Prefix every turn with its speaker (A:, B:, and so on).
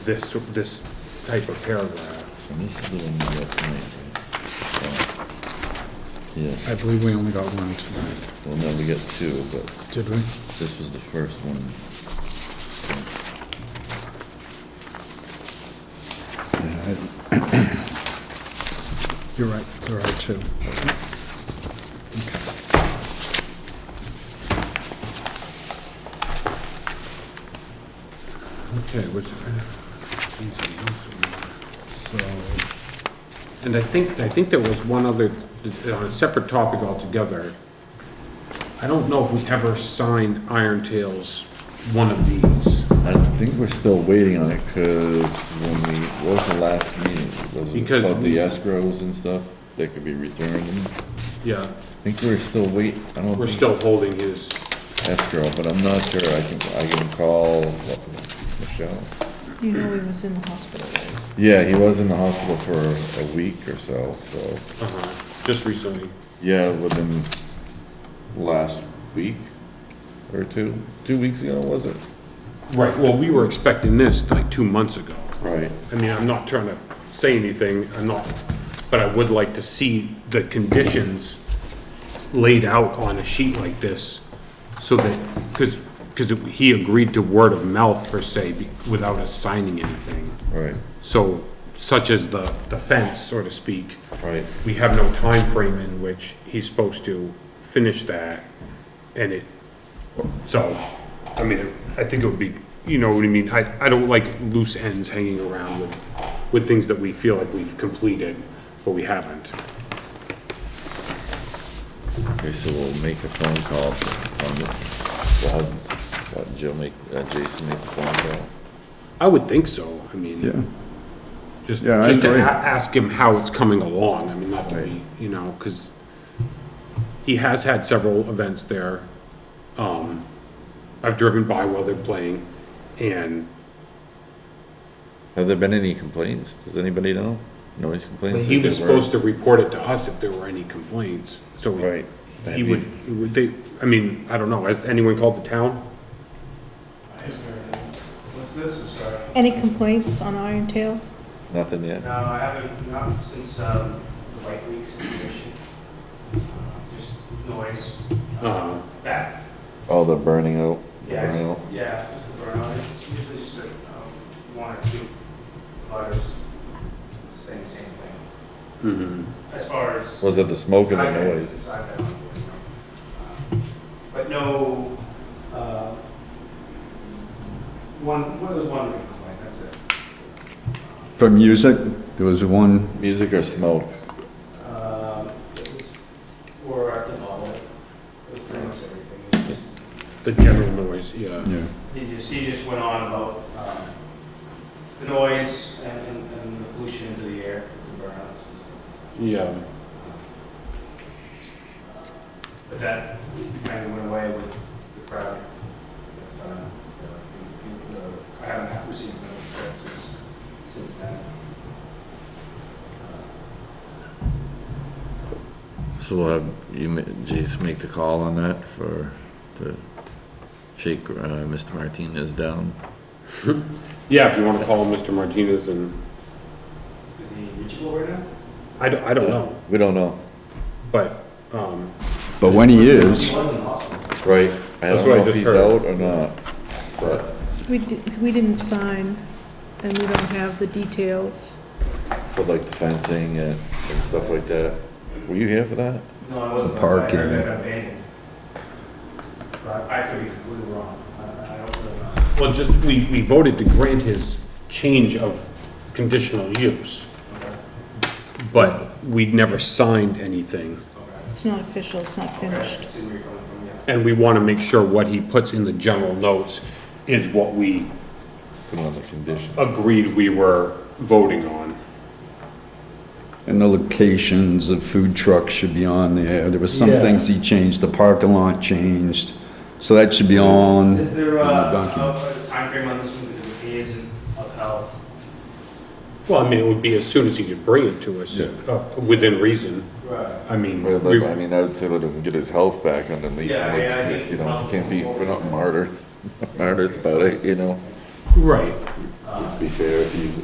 A: this, this type of paragraph.
B: And this is the one we got tonight, right? So,
C: I
B: Yes,
C: believe we only got one tonight,
B: well, no, we got two, but
C: did we?
B: this was the first one.
C: You're right, there are two.
A: Okay, was. uh, So, and I think, I think there was one other, on a separate topic altogether. I don't know if we ever signed Iron Tales one of these,
B: I think we're still waiting on it, cause when we, what was the last meeting? Was it
A: Because
B: about
A: we-
B: the escrows and stuff that could be returned?
A: yeah,
B: I think we're still wait, I don't
A: we're
B: think
A: still holding his,
B: escrow, but I'm not sure, I can, I can call what, Michelle.
D: You know he was in the hospital, right?
B: Yeah, he was in the hospital for a week or so, so,
A: uh-huh, just recently,
B: yeah, within last week or two, two weeks ago, was it?
A: right, well, we were expecting this like two months ago.
B: Right.
A: I mean, I'm not trying to say anything, I'm not, but I would like to see the conditions laid out on a sheet like this, so that, because, because he agreed to word of mouth per se, be- without us signing anything.
B: Right,
A: So, such as the, the fence, so to speak,
B: right,
A: we have no time frame in which he's supposed to finish that, and it, so, I mean, I think it would be, you know what I mean, I, I don't like loose ends hanging around with, with things that we feel like we've completed, but we haven't.
B: okay, so we'll make a phone call on the, we'll have, what, Joe make, uh, Jason make the phone call?
A: I would think so, I mean, just,
C: Yeah, I
A: just to a-
C: agree.
A: ask him how it's coming along, I mean, not to be, you know, cause he has had several events there, um, I've driven by while they're playing, and
B: Have there been any complaints? Does anybody know? Noise complaints?
A: He was supposed to report it to us if there were any complaints, so. he-
B: Right.
A: He would, he would, they, I mean, I don't know, has anyone called the town?
E: What's this, I'm sorry?
D: Any complaints on Iron Tales?
B: Nothing yet?
E: No, I haven't, not since um, the White Week situation. Uh, Just noise.
A: Uh,
E: Back.
B: Oh, the burning out?
E: Yeah, it's-
B: burnout.
E: yeah, just the burnout. It's usually just a, um, one or two butters saying the same thing.
A: mhm.
E: As far as.
B: Was it the smoke and the
E: I've been-
B: noise?
E: since I've been on board, you know. Um, But no, uh, one, one, there was one complaint, that's it.
F: For music, there was one,
B: Music or smoke?
E: Um, It was for our development. It was pretty much everything. It was just-
A: The general noise, yeah.
F: yeah,
E: He just, he just went on about um, the noise and- and and the pollution into the air, the burnouts. and stuff. Um,
A: Yeah.
E: But that kind of went away with the crowd. But, uh, you know, I haven't had- received no threats since, since then. Uh,
B: So we'll have you, ma- Jason, make the call on that for, to shake uh, Mr. Martinez down.
A: Yeah, if you wanna call Mr. Martinez and,
E: Is he reachable right now?
A: I don't, I don't know,
B: We don't know.
A: but, um,
F: but when he
E: He
F: is,
E: was in the hospital.
B: Right. I
A: That's
B: don't
A: what I
B: know if
A: just
B: he's
A: heard.
B: out or not, but
D: We, di- we didn't sign, and we don't have the details.
B: for like the fencing and, and stuff like that. Were you here for that?
E: No, I wasn't.
F: The
E: I heard
F: parking.
E: that got abandoned. But I could be completely wrong. I I don't really know.
A: well, just, we, we voted to grant his change of conditional use,
E: Okay.
A: but we never signed anything.
E: Okay.
D: It's not official, it's not
E: Okay, I
D: finished.
E: see where you're coming from, yeah.
A: And we wanna make sure what he puts in the general notes is what we
B: Put on the condition.
A: agreed we were voting on.
F: and the locations of food trucks should be on there. There was some
A: Yeah.
F: things he changed, the parking lot changed, so that should be on.
E: Is there a,
F: on the document.
E: a timeframe on this one, because if he isn't of health?
A: Well, I mean, it would be as soon as he could bring it to us, uh, within reason.
E: Right.
A: I mean,
B: Well,
A: we-
B: like, I mean, I would say let him get his health back underneath,
E: Yeah, I mean, I
A: um,
B: like,
E: think-
B: you know, can't be, we're not martyrs, martyrs about it, you know?
G: Right.
H: Uh,
A: Let's be fair, if he's